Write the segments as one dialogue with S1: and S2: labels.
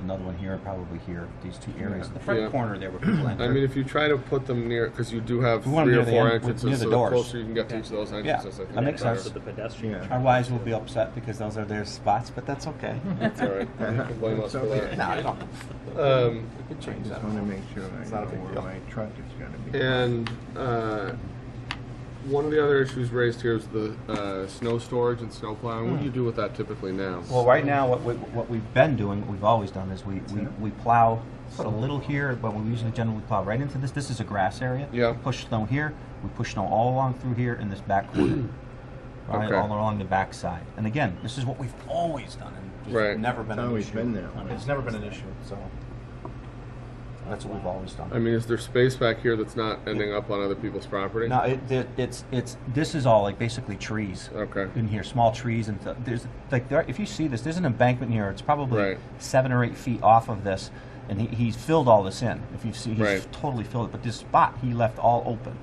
S1: another one here, and probably here, these two areas.
S2: Yeah.
S1: The front
S3: Yeah.
S1: corner there where people enter.
S3: I mean, if you try to put them near, because you do have
S1: We want 'em
S3: three or
S1: near the
S3: four
S1: end- with- near
S3: entrances,
S1: the
S3: so the
S1: doors.
S3: closer you can get to each of those entrances, I think.
S1: that makes
S3: the better.
S1: sense.
S4: For the pedestrian.
S2: Yeah.
S1: Our wives will be upset because those are their spots, but that's okay.
S3: It's all right. You can blame us for
S1: No,
S3: that.
S1: I don't,
S3: Um,
S1: we could
S2: I
S1: change that.
S2: just want to make sure I
S1: It's
S2: know
S1: not a big
S2: where
S1: deal.
S2: my truck is going to be.
S3: And uh, one of the other issues raised here is the uh, snow storage and snow plowing. What do you do with that typically now?
S1: Hmm. Well, right now, what, we, what we've been doing, what we've always done, is we, we, we plow, put a little here, but we usually generally plow right into this. This is a grass area.
S3: Yeah.
S1: Push snow here, we push snow all along through here in this back corner. Right,
S3: Okay.
S1: all along the back side. And again, this is what we've always done, and it's
S3: Right.
S1: never been
S2: It's
S1: an
S2: always
S1: issue.
S2: been that way.
S1: It's never been an issue, so that's what we've always done.
S3: I mean, is there space back here that's not ending up on other people's property?
S1: No, it, it, it's it's this is all like basically trees.
S3: Okay.
S1: In here, small trees and th- there's like there. If you see this, there's an embankment here. It's probably
S3: Right.
S1: seven or eight feet off of this, and he, he's filled all this in. If you see, he's
S3: Right.
S1: totally filled it. But this spot he left all open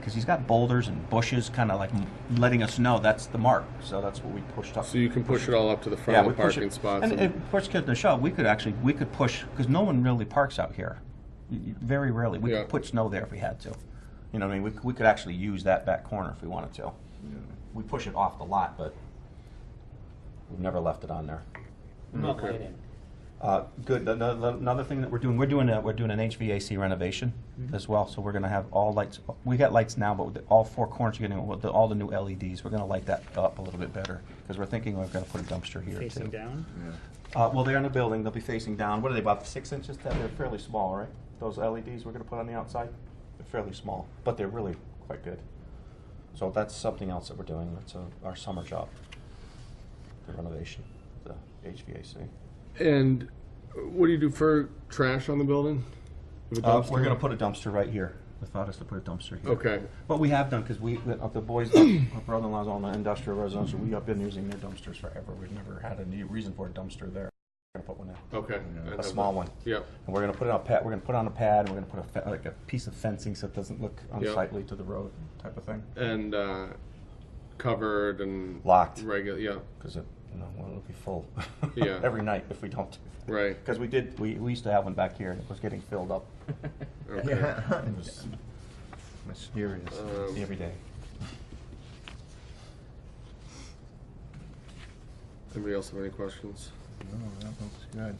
S1: because he's got boulders and bushes, kind of like m- letting us know that's the mark. So that's what we pushed up.
S3: So you can push it all up to the
S1: yeah,
S3: front
S1: we
S3: of the
S1: push
S3: parking
S1: it.
S3: spots?
S1: And,
S3: and-
S1: and of course, kids in the shop, we could actually we could push because no one really parks out here. Y- y- Very rarely, we
S3: Yeah.
S1: could put snow there if we had to. You know, what I mean, we, c- we could actually use that back corner if we wanted to. We push it off the lot, but we've never left it on there.
S4: Not
S3: Mm-hmm. Okay.
S4: lighting.
S1: Uh, Good, The- the- the- another thing that we're doing, we're doing, a- we're doing an HVAC renovation
S3: Mm-hmm.
S1: as well, so we're gonna have all lights, we got lights now, but with the- all four corners, you're getting with the- all the new LEDs, we're gonna light that up a little bit better, because we're thinking we're gonna put a dumpster here too.
S4: Facing down.
S2: Yeah.
S1: Uh, well, they're in the building, they'll be facing down. What are they, about six inches? They're fairly small, right? Those LEDs we're gonna put on the outside? They're fairly small, but they're really quite good. So that's something else that we're doing. That's uh, our summer job, the renovation, the HVAC.
S3: And what do you do for trash on the building? With a
S1: Uh,
S3: dumpster?
S1: we're gonna put a dumpster right here. They thought us to put a dumpster here.
S3: Okay,
S1: But we have done, because we, the uh, the boys, uh, our brother-in-law's on the industrial residential, we have been using their dumpsters forever. We've never had any reason for a dumpster there. We're gonna put one in.
S3: okay. I
S1: a
S3: have
S1: small
S3: that.
S1: one.
S3: Yep.
S1: And we're gonna put it on a pad, we're gonna put it on a pad, and we're gonna put a, fe- like a piece of fencing so it doesn't look unsightly to the road type of thing.
S3: And uh, covered and
S1: Locked,
S3: regular, yeah,
S1: because it, you know, it'll be full
S3: Yeah.
S1: every night if we don't.
S3: right.
S1: Because we did, we, we used to have one back here and it was getting filled up
S3: Okay.
S2: Yeah.
S1: It was
S2: Mysterious. Oh,
S3: Um,
S1: every day.
S3: Anybody else have any questions?
S2: No, that looks good.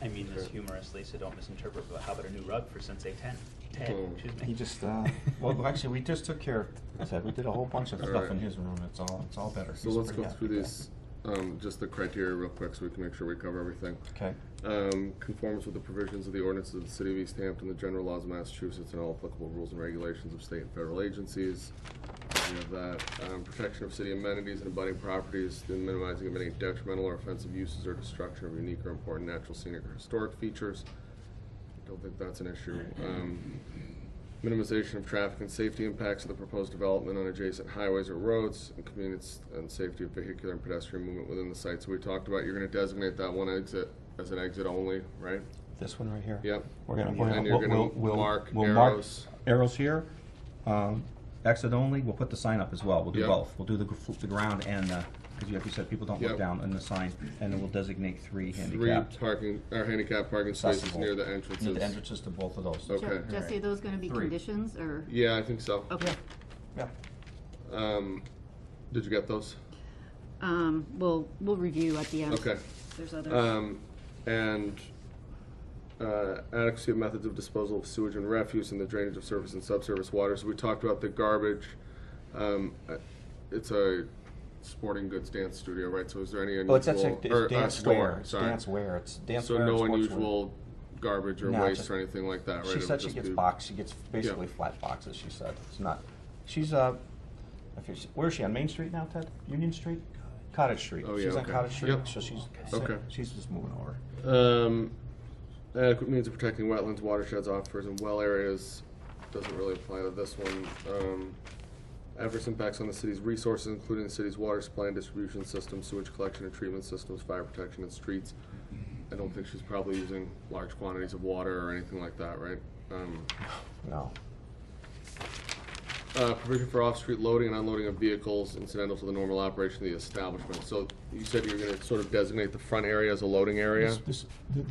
S4: I mean this humorously, so don't misinterpret, but how about a new rug for Sensei ten? Ted,
S3: Oh.
S4: excuse
S1: He
S4: me.
S1: just, uh, well, actually, we just took care of, said, we did a whole bunch of stuff in his room, it's all, it's all better.
S3: So
S1: He's
S3: let's
S1: pretty
S3: go
S1: happy
S3: through
S1: with
S3: these, um, just the criteria real quick so we can make sure we cover everything.
S1: that. Okay,
S3: Um, Conforms with the provisions of the ordinances of the city of East Hampton, the general laws of Massachusetts, and all applicable rules and regulations of state and federal agencies. We have that, um, protection of city amenities and abutting properties, the minimizing of any detrimental or offensive uses or destruction of unique or important natural scenic or historic features. I Don't think that's an issue. Um, Minimization of traffic and safety impacts of the proposed development on adjacent highways or roads, and convenience and safety of vehicular and pedestrian movement within the site. So we talked about, you're gonna designate that one exit as an exit only, right?
S1: this one right here.
S3: Yep.
S1: We're gonna,
S2: And
S1: we're gonna-
S3: you're
S1: we'll-
S3: gonna
S1: we'll- we'll-
S3: mark
S1: we'll mark
S3: arrows.
S1: Arrows here, um, exit only, we'll put the sign up as well, we'll do
S3: Yep.
S1: both, we'll do the, gr- the ground and, uh, cause you- like you said, people don't look
S3: Yep.
S1: down in the sign, and then we'll designate three
S3: Three
S1: handicapped.
S3: parking, or handicap parking spaces
S1: accessible.
S3: near the
S1: Near the
S3: entrances.
S1: entrances to both of those.
S3: Okay.
S5: Jo- Jesse, are those gonna be
S1: Three.
S5: conditions, or?
S3: Yeah, I think so.
S5: Okay,
S1: Yeah.
S3: Um, did you get those?
S5: um, we'll, we'll review at the end.
S3: Okay.
S5: There's others.
S3: Um, and, uh, adequacy of methods of disposal of sewage and refuse and the drainage of surface and subsurface water. So we talked about the garbage. Um, uh, it's a sporting goods dance studio, right? So is there any unusual?
S1: Well, Oh, it's actually, it's
S3: or, uh,
S1: dance
S3: store,
S1: wear, it's
S3: sorry.
S1: dance wear, it's dance
S3: So
S1: wear and
S3: no
S1: sportswear.
S3: unusual garbage or
S1: No,
S3: waste
S1: just-
S3: or anything like that, right?
S1: She
S3: It
S1: said
S3: would
S1: she
S3: just
S1: gets
S3: be-
S1: boxed, she gets basically flat boxes, she said, it's not, she's, uh, if it's, where is she, on Main Street now, Ted? Union Street? Cottage Street,
S3: Oh, yeah,
S1: she's on
S3: okay.
S1: Cottage Street,
S3: Yep.
S1: so she's,
S3: Okay.
S1: she's just moving over.
S3: Um, adequate means of protecting wetlands, watersheds, aquifers, and well areas, doesn't really apply to this one. Um, adverse impacts on the city's resources, including the city's water supply and distribution system, sewage collection and treatment systems, fire protection and streets. I don't think she's probably using large quantities of water or anything like that, right? Um,
S1: No.
S3: uh, provision for off-street loading and unloading of vehicles incidental to the normal operation of the establishment. So you said you were gonna sort of designate the front area as a loading area?
S1: This- this-